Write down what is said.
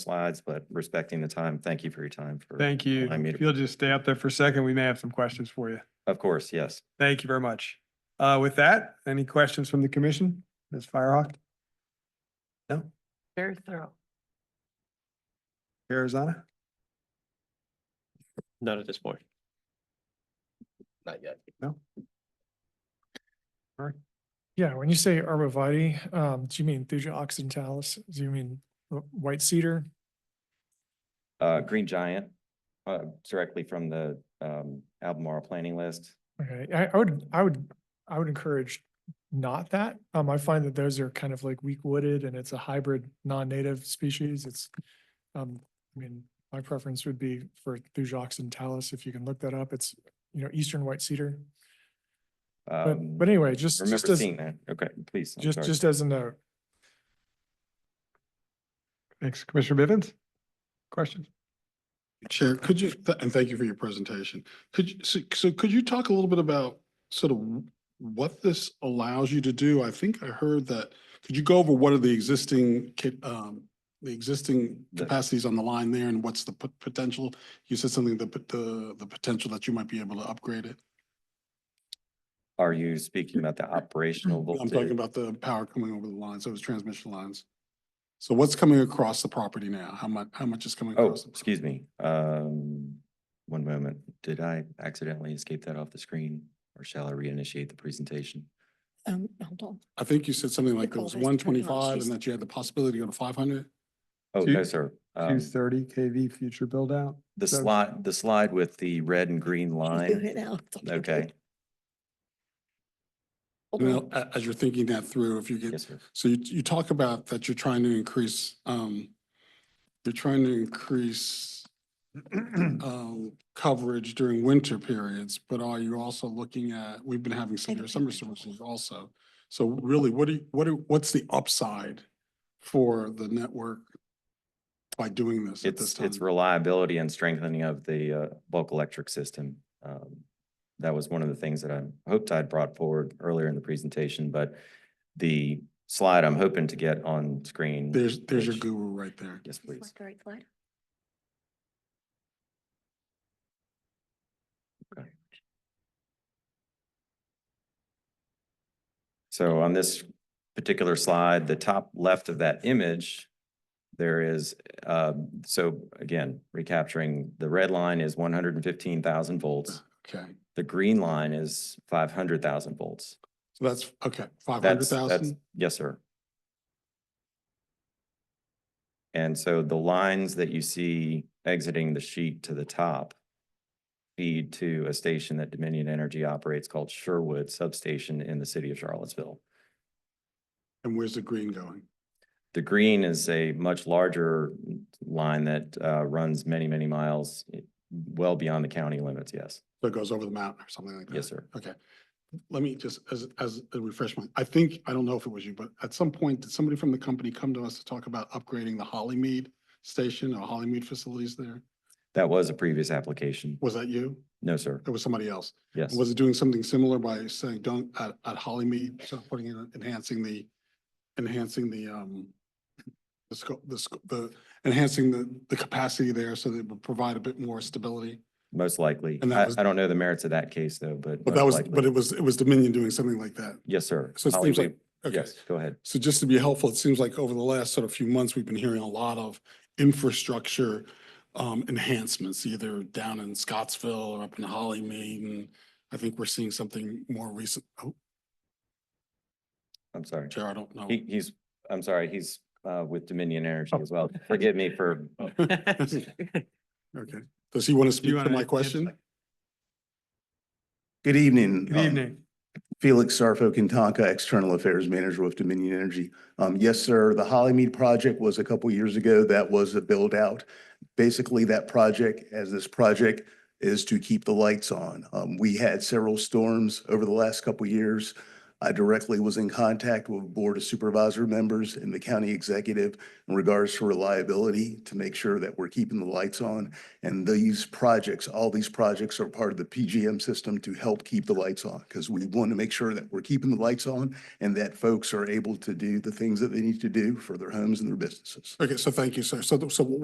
slides, but respecting the time, thank you for your time. for- Thank you. allowing me to- If you'll just stay up there for a second, we may have some questions for you. Of course, yes. Thank you very much. Uh, with that, any questions from the commission? Ms. Firehawk? No? Very thorough. Arizona? Not at this point. Not yet. Yeah, when you say arborvitae, um, do you mean Thuja occidentalis? Do you mean wh- white cedar? Uh, Green Giant, uh, directly from the, um, Albemarle planning list. Okay, I, I would, I would, I would encourage not that. Um, I find that those are kind of like weak wooded and it's a hybrid non-native species. It's, um, I mean, my preference would be for Thuja occidentalis, if you can look that up. It's, you know, eastern white cedar. But, Um, but anyway, just, just Remember as, seeing that. Okay, please. I'm just, sorry. just as a note. Thanks. Commissioner Bivens? Questions? Chair, could you, th- and thank you for your presentation. Could, you so- so could you talk a little bit about sort of what this allows you to do? I think I heard that, could you go over what are the existing, ca- um, the existing The- capacities on the line there and what's the pot- potential? You said something, the, pot- the, the potential that you might be able to upgrade it. Are you speaking about the operational I'm talking voltage? about the power coming over the lines, those transmission lines. So what's coming across the property now? How much, how much is coming Oh, across? the property? excuse me. Um, one moment. Did I accidentally escape that off the screen? Or shall I reinitiate the presentation? Um, hold on. I think you said something like it call was this one twenty-five technologies. and that you had the possibility to go to five hundred? Oh, Two- no, sir. Um, Two thirty KV future build out? The so- slide, the slide with the red and green She's doing line. it now. It's Okay, Hold Well, on. a- as you're thinking that through, if you get, yes, sir. so you, you talk about that you're trying to increase, um, you're trying to increase, um, coverage during winter periods, but are you also looking at, we've been having severe don't summer think I services also. So really, what do you, what do, what's the upside for the network by doing this at this It's, time? it's reliability and strengthening of the uh, bulk electric system. Um, That was one of the things that I hoped I'd brought forward earlier in the presentation, but the slide I'm hoping to get on screen. There's, there's your which- guru right there. Yes, please. Select the right slide. So on this particular slide, the top left of that image, there is, um, so again, recapturing, the red line is one hundred and fifteen thousand volts. Okay, The green line is five hundred thousand volts. so that's, okay, five hundred That's, that's, thousand? yes, sir. And so the lines that you see exiting the sheet to the top feed to a station that Dominion Energy operates called Sherwood Substation in the city of Charlottesville. And where's the green going? The green is a much larger line that uh, runs many, many miles eh, well beyond the county limits, yes. So it goes over the mountain or something like that? Yes, sir. Okay. Let me just, as, as a refreshment, I think, I don't know if it was you, but at some point, did somebody from the company come to us to talk about upgrading the Hollymead station or Hollymead facilities there? That was a previous application. Was that you? No, sir. It was somebody else. Yes. Was it doing something similar by saying, don't, at, at Hollymead, so putting in, enhancing the, enhancing the, um, the scope, the, sco- the, enhancing the, the capacity there so that it would provide a bit more stability? Most likely. And that I was- I don't know the merits of that case, though, but. But that most was, likely. but it was, it was Dominion doing something like that. Yes, sir. So it Holly seems like, Weep. okay. Yes, go ahead. So just to be helpful, it seems like over the last sort of few months, we've been hearing a lot of infrastructure um, enhancements, either down in Scottsville or up in Hollymead. And I think we're seeing something more recent. Oh, I'm sorry. Chair, I don't know. He, he's, I'm sorry, he's uh, with Dominion Energy Oh. as well. Forgive me for, Okay. Does he want to speak wanna to my give- question? Good evening. Good um, evening. Felix Sarfo Kintanka, External Affairs Manager with Dominion Energy. Um, yes, sir, the Hollymead project was a couple years ago. That was a build out. Basically, that project, as this project, is to keep the lights on. Um, we had several storms over the last couple years. I directly was in contact with Board of Supervisor members and the county executive in regards to reliability to make sure that we're keeping the lights on. And these projects, all these projects are part of the PGM system to help keep the lights on because we want to make sure that we're keeping the lights on and that folks are able to do the things that they need to do for their homes and their businesses. Okay, so thank you, sir. So, th- so what